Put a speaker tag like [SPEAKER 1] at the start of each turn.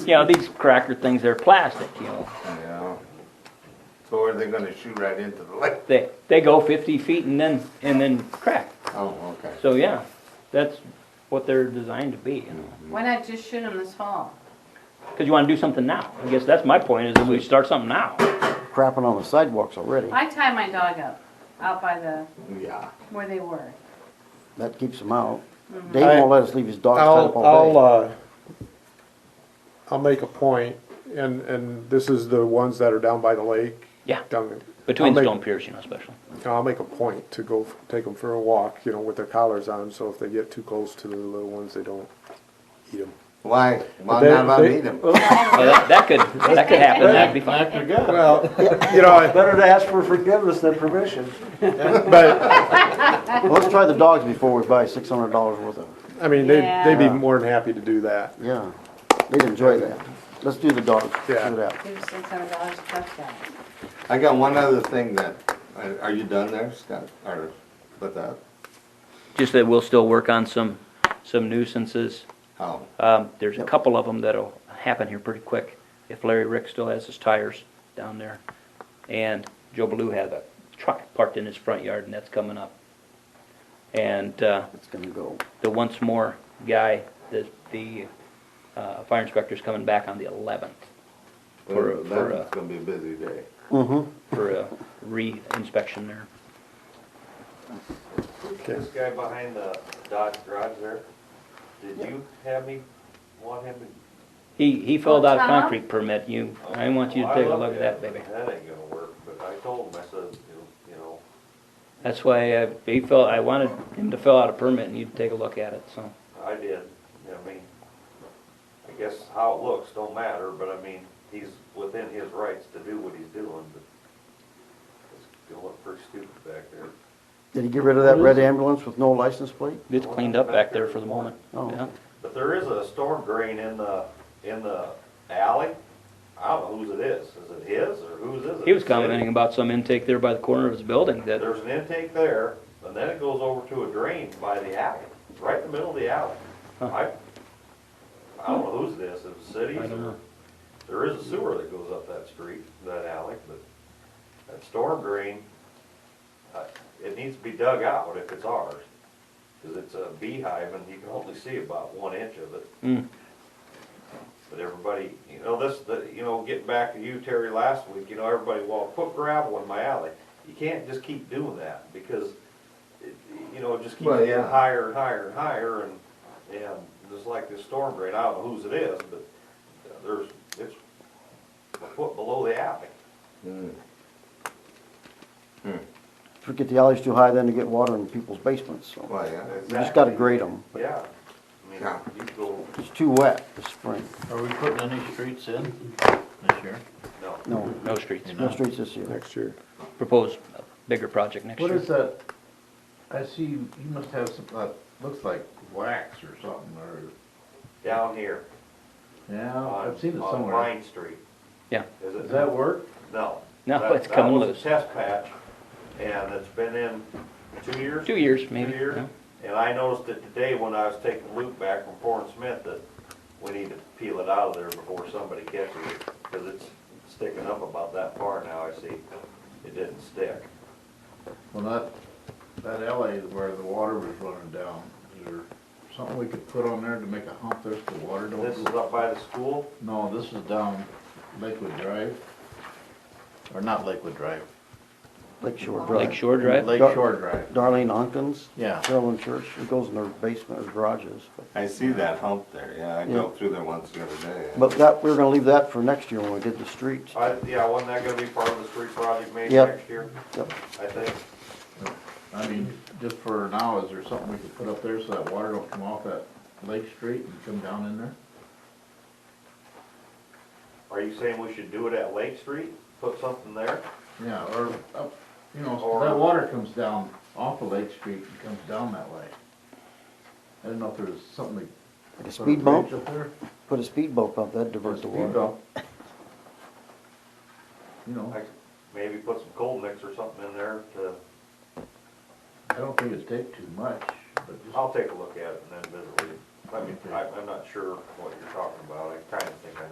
[SPEAKER 1] You know, these cracker things, they're plastic, you know.
[SPEAKER 2] Yeah. So are they gonna shoot right into the lake?
[SPEAKER 1] They, they go fifty feet and then, and then crack.
[SPEAKER 2] Oh, okay.
[SPEAKER 1] So, yeah, that's what they're designed to be, you know.
[SPEAKER 3] Why not just shoot them this fall?
[SPEAKER 1] Cause you wanna do something now. I guess that's my point, is that we start something now.
[SPEAKER 4] crapping on the sidewalks already.
[SPEAKER 3] I tied my dog up, out by the,
[SPEAKER 2] Yeah.
[SPEAKER 3] where they were.
[SPEAKER 4] That keeps them out. Dave won't let us leave his dogs tied up
[SPEAKER 5] I'll,
[SPEAKER 4] all
[SPEAKER 5] I'll,
[SPEAKER 4] day.
[SPEAKER 5] uh, I'll make a point, and, and this is the ones that are down by the lake.
[SPEAKER 1] Yeah,
[SPEAKER 5] Down,
[SPEAKER 1] between
[SPEAKER 5] I'll make-
[SPEAKER 1] Stone Pierce, you know, especially.
[SPEAKER 5] I'll make a point to go f- take them for a walk, you know, with their collars on, so if they get too close to the little ones, they don't eat them.
[SPEAKER 2] Why, why
[SPEAKER 5] They-
[SPEAKER 2] not about
[SPEAKER 5] they-
[SPEAKER 2] eat them?
[SPEAKER 1] Oh, that, that could, that could happen, that'd be fine.
[SPEAKER 5] Well, you know,
[SPEAKER 6] Better to ask for forgiveness than permission.
[SPEAKER 5] but,
[SPEAKER 4] Well, Let's try the dogs before we buy six hundred dollars worth of,
[SPEAKER 5] I mean, they'd, they'd be
[SPEAKER 4] Yeah.
[SPEAKER 5] more than happy to do that.
[SPEAKER 4] yeah, they'd enjoy that. Let's do the dogs,
[SPEAKER 5] Yeah.
[SPEAKER 4] shoot it out.
[SPEAKER 3] Give us six hundred dollars to touch that.
[SPEAKER 2] I got one other thing that, are- are you done there, Scott, or with that?
[SPEAKER 1] Just that we'll still work on some, some nuisances.
[SPEAKER 2] Oh,
[SPEAKER 1] Um, there's a couple of them that'll happen here pretty quick, if Larry Rick still has his tires down there. And Joe Blue had a truck parked in his front yard, and that's coming up. And, uh,
[SPEAKER 4] It's gonna go.
[SPEAKER 1] the once more guy, the, the, uh, fire inspector's coming back on the eleventh For a- for a-
[SPEAKER 2] that's gonna be a busy day.
[SPEAKER 4] Mm-hmm.
[SPEAKER 1] for a re-inspection there.
[SPEAKER 7] This guy behind the Dodge garage there, did you have me, want him to?
[SPEAKER 1] He, he filled out a
[SPEAKER 3] What's that?
[SPEAKER 1] concrete permit, you, I want you to
[SPEAKER 7] Well, Oh, I
[SPEAKER 1] take a look
[SPEAKER 7] looked
[SPEAKER 1] at that,
[SPEAKER 7] it,
[SPEAKER 1] baby.
[SPEAKER 7] but That ain't gonna work, but I told him, I said, you- you know,
[SPEAKER 1] That's why I, he felt, I wanted him to fill out a permit and you'd take a look at it, so.
[SPEAKER 7] I did, I mean, I guess how it looks don't matter, but I mean, he's within his rights to do what he's doing, but it's gonna look pretty stupid back there.
[SPEAKER 4] Did he get rid of that red ambulance with no license plate?
[SPEAKER 1] It's cleaned up back there for the moment.
[SPEAKER 4] Oh.
[SPEAKER 1] Yeah.
[SPEAKER 7] But there is a storm drain in the, in the alley, I don't know whose it is, is it his or whose is it?
[SPEAKER 1] He was
[SPEAKER 7] The city?
[SPEAKER 1] commenting about some intake there by the corner of his building that,
[SPEAKER 7] There's an intake there, and then it goes over to a drain by the alley, right in the middle of the alley. I, I don't know who's this, if it's cities
[SPEAKER 1] I don't
[SPEAKER 7] or,
[SPEAKER 1] know.
[SPEAKER 7] there is a sewer that goes up that street, that alley, but that storm drain, uh, it needs to be dug out if it's ours. Cause it's a beehive and you can only see about one inch of it.
[SPEAKER 1] mm,
[SPEAKER 7] But everybody, you know, this, the, you know, getting back to you, Terry, last week, you know, everybody, well, put gravel in my alley. You can't just keep doing that because, it- you know, it just keeps
[SPEAKER 2] Well,
[SPEAKER 7] getting
[SPEAKER 2] yeah.
[SPEAKER 7] higher and higher and higher and, and just like this storm drain, I don't know whose it is, but there's, it's a foot below the alley.
[SPEAKER 2] Mm.
[SPEAKER 4] If we get the alleys too high, then they get water in people's basements, so.
[SPEAKER 2] Well, yeah.
[SPEAKER 4] We just gotta grade them.
[SPEAKER 7] Yeah. I mean,
[SPEAKER 2] Yeah.
[SPEAKER 7] you go,
[SPEAKER 4] It's too wet this spring.
[SPEAKER 8] Are we putting any streets in this year?
[SPEAKER 7] no.
[SPEAKER 4] No,
[SPEAKER 1] no streets.
[SPEAKER 4] no streets this year.
[SPEAKER 5] Next year.
[SPEAKER 1] Proposed a bigger project next
[SPEAKER 8] What
[SPEAKER 1] year.
[SPEAKER 8] is that? I see you you must have some, uh, looks like wax or something, or,
[SPEAKER 7] Down here
[SPEAKER 8] yeah,
[SPEAKER 7] on,
[SPEAKER 8] I've seen it
[SPEAKER 7] on
[SPEAKER 8] somewhere.
[SPEAKER 7] Vine Street.
[SPEAKER 1] Yeah.
[SPEAKER 7] Is it?
[SPEAKER 8] Does that work?
[SPEAKER 7] No.
[SPEAKER 1] No,
[SPEAKER 7] That-
[SPEAKER 1] it's come
[SPEAKER 7] That was
[SPEAKER 1] loose.
[SPEAKER 7] a test patch, and it's been in two years?
[SPEAKER 1] Two years maybe.
[SPEAKER 7] Two years.
[SPEAKER 1] yeah.
[SPEAKER 7] And I noticed it today when I was taking the loop back from Fort Smith that we need to peel it out of there before somebody catches it, because it's sticking up about that far now, I see. It didn't stick.
[SPEAKER 8] Well, that, that alley where the water was running down, is there something we could put on there to make a hump there so the water don't?
[SPEAKER 7] This is
[SPEAKER 8] go-
[SPEAKER 7] up by the school,
[SPEAKER 8] No, this is down Lakewood Drive, or not Lakewood Drive,
[SPEAKER 4] Lake Shore
[SPEAKER 1] Lake
[SPEAKER 4] Drive.
[SPEAKER 1] Shore Drive?
[SPEAKER 8] Lake Shore Drive.
[SPEAKER 4] Darlene Onkins,
[SPEAKER 8] Yeah.
[SPEAKER 4] Carolyn Church, she goes in her basement or garages. but-
[SPEAKER 2] I see that hump there, yeah, I drove through there once the other day.
[SPEAKER 4] But that, we were gonna leave that for next year when we did the streets.
[SPEAKER 7] I, yeah, wasn't that gonna be part of the street project maybe
[SPEAKER 4] Yep.
[SPEAKER 7] next year,
[SPEAKER 4] Yep.
[SPEAKER 7] I think?
[SPEAKER 8] I mean, just for now, is there something we could put up there so that water don't come off that Lake Street and come down in there?
[SPEAKER 7] Are you saying we should do it at Lake Street, put something there?
[SPEAKER 8] Yeah, or up, you know, so
[SPEAKER 7] Or-
[SPEAKER 8] that water comes down off of Lake Street and comes down that way. I didn't know if there was something.
[SPEAKER 4] Like a
[SPEAKER 8] to
[SPEAKER 4] speed bump,
[SPEAKER 8] Up there.
[SPEAKER 4] put a speed bump up, that'd
[SPEAKER 8] Or a
[SPEAKER 4] divert the
[SPEAKER 8] speed
[SPEAKER 4] water.
[SPEAKER 8] bump. You know,
[SPEAKER 7] Like, Maybe put some cold mix or something in there to,
[SPEAKER 8] I don't think it'd take too much, but just,
[SPEAKER 7] I'll take a look at it and then visit with you. I mean, I, I'm not sure what you're talking about, I kinda think I know